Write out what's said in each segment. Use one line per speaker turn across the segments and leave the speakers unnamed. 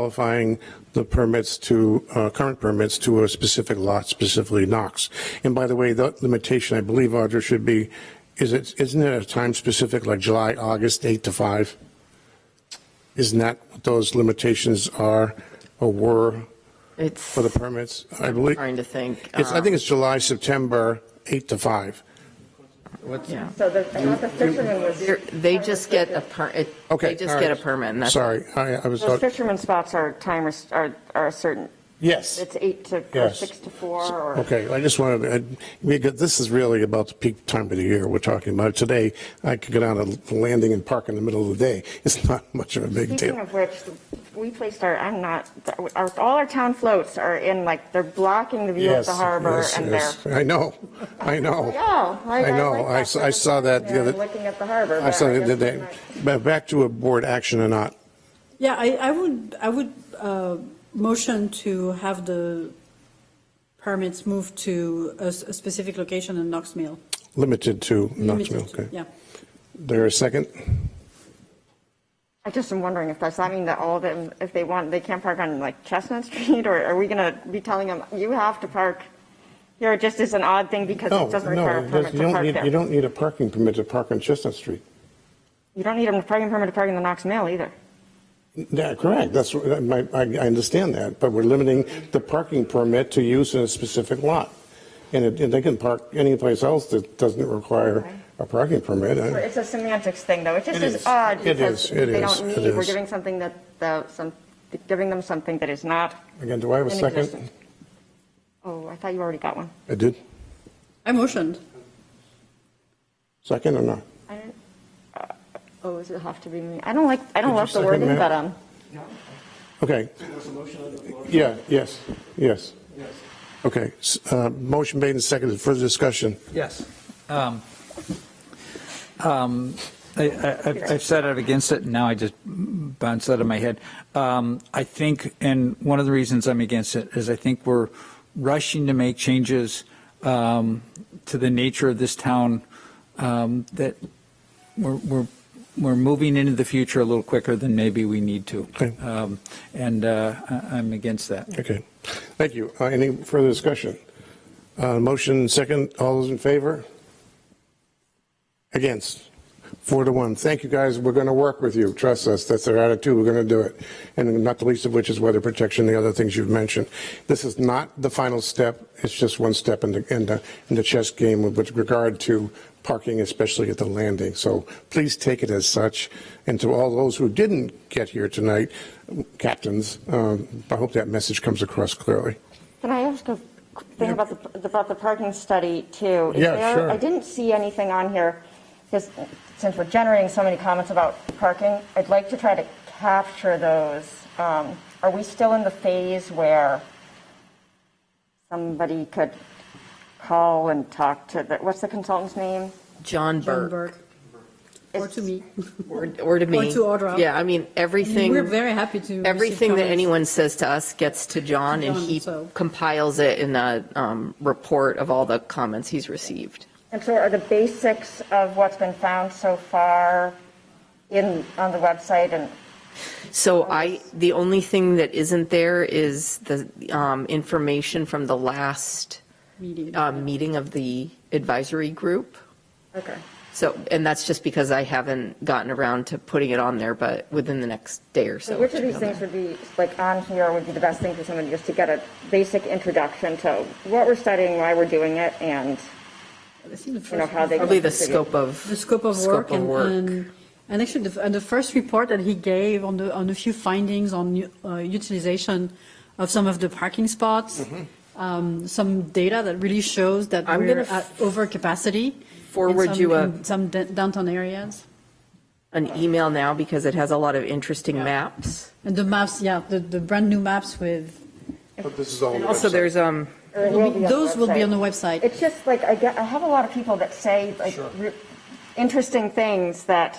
qualifying the permits to, uh, current permits to a specific lot, specifically Knox. And by the way, the limitation, I believe, Audra, should be, is it, isn't it a time specific, like July, August, 8 to 5? Isn't that what those limitations are or were
It's,
for the permits? I believe,
trying to think.
it's, I
um,
think it's July, September, 8 to 5.
yeah.
So the, I thought the fisherman was.
They're- They just get a per, it-
Okay.
they just
all
get a
right.
permit, and that's.
Sorry, I, I was,
Those fisherman spots are timers, are, are a certain,
yes.
it's eight to, or
Yes.
six to four, or,
Okay, I just wanted, to- I- because this is really about the peak time of the year we're talking about. Today, I could go down to landing and park in the middle of the day. It's not much of a big
speaking
deal.
of which, we placed our, I'm not, our, all our town floats are in, like, they're blocking the view of
Yes,
the harbor,
yes,
and they're,
yes. I know, I know.
yeah.
I know,
like
I
that.
s- I saw that the
They're
other-
Looking at the harbor.
I
but
saw
guess
that
it's
they,
not-
but back to a board action or not.
Yeah, I, I would, I would uh, motion to have the permits moved to a s- a specific location in Knox Mill.
Limited to Knoxville,
Limited to-
okay.
Yeah.
There a second?
I just am wondering if does that mean that all of them, if they want, they can't park on like Chestnut Street, or are we gonna be telling them, you have to park? Here, it just is an odd thing because
No,
it doesn't
no,
require a
it
permit
doesn't- you
to
don't
park
need, you
there.
don't need a parking permit to park on Chestnut Street.
You don't need a parking permit to park in the Knox Mill either.
Yeah, correct, that's, what- that might- I, I understand that, but we're limiting the parking permit to use in a specific lot. And it- and they can park any place else that doesn't require a parking permit. I-
It's a semantics thing, though. It just
It
is
is.
odd
It
because
is, it
they
is,
don't
it
need, we're
is.
giving something that, the, some, giving them something that is not.
Again, do I have a
in
second?
existence. Oh, I thought you already got one.
I did,
I motioned.
second or not?
I didn't, uh, oh, does it have to be me? I don't like, I
Did
don't
you
love the
second
wording,
that?
but, um,
Okay. Yeah, yes, yes. Okay, s- uh, motion made and seconded, further discussion.
Yes. Um, um, I- I- I've I've said it against it, and now I just bounced out of my head. Um, I think, and one of the reasons I'm against it is I think we're rushing to make changes um, to the nature of this town um, that we're, we're, we're moving into the future a little quicker than maybe we need to.
Okay.
Um, And uh, I- I'm against that.
Okay, thank you. Uh, Any further discussion? Uh, Motion second, all those in favor? Against? Four to one. Thank you, guys. We're going to work with you. Trust us. That's our attitude. We're going to do it. And not the least of which is weather protection, the other things you've mentioned. This is not the final step. It's just one step in the, in the, in the chess game with regard to parking, especially at the landing. So please take it as such. And to all those who didn't get here tonight, captains, um, I hope that message comes across clearly.
can I ask a quick thing about the, about the parking study too? Is
Yeah,
there-
sure.
I didn't see anything on here, because since we're generating so many comments about parking, I'd like to try to capture those. Um, Are we still in the phase where somebody could call and talk to, the what's the consultant's name?
John
John
Burke,
Burke. Or to me.
Um,
or or to me.
Or to Audra.
Yeah, I mean, everything.
We're very happy to receive
Everything that
comments.
anyone says to us gets to John, and
John,
he
so-
compiles it in a um, report of all the comments he's received.
And so are the basics of what's been found so far in, on the website and
So I, the only thing that isn't there is the um, information from the last
Meeting.
um, meeting of the advisory group.
Okay.
So, and that's just because I haven't gotten around to putting it on there, but within the next day or so.
So
it
which of
should be
these
on
things
there.
would be, like, on here would be the best thing for someone just to get a basic introduction to what we're studying, why we're doing it, and,
I think the
you know,
first-
how they.
Probably the scope of.
The scope of work and, and, and actually the, and the first report that he gave on the, on a few findings on uh, utilization of some of the parking spots, um, some data that really shows that
Mm-hmm. I'm
we're
gonna
at over capacity.
forward you a-
Some da- downtown areas.
an email now because it has a lot of interesting maps.
And the maps, yeah, the, the brand new maps with,
But this is all.
And also, there's um,
Or it will be on the
those will be on the
website.
website.
It's just like, I get, I have a lot of people that say, like, re- interesting things that,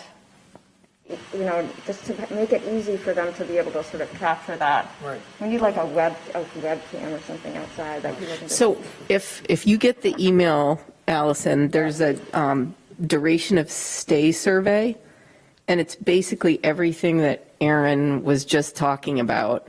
you know, just to make it easy for them to be able to sort of capture that. Right. We need like a web, a webcam or something outside that people can just.
so if if you get the email, Allison, there's a um, duration of stay survey, and it's basically everything that Aaron was just talking about